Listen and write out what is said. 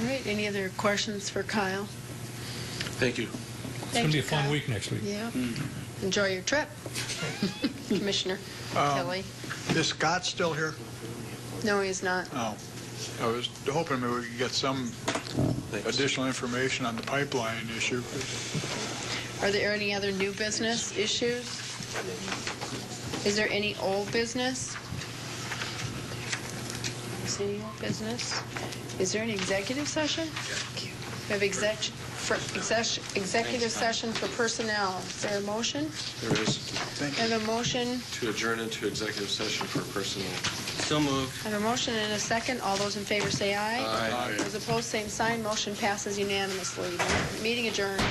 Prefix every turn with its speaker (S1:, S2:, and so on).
S1: All right, any other questions for Kyle?
S2: Thank you.
S1: It's
S3: It's going to be a fun week next week.
S1: Yeah. Enjoy your trip, Commissioner Kelly.
S4: Is Scott still here?
S1: No, he's not.
S4: No. I was hoping maybe we could get some
S2: Thanks.
S4: additional information on the pipeline issue.
S1: Are there any other new business issues? Is there any old business? Is there any old business? Is there an executive session? We have exec, for, exec, executive session for personnel. Is there a motion?
S2: There is
S4: Thank
S1: I
S4: you.
S1: have a motion,
S2: to adjourn into executive session for personnel.
S5: So moved.
S1: I have a motion and a second. All those in favor say aye.
S2: Aye.
S1: Those opposed, same sign. Motion passes unanimously. Meeting adjourned.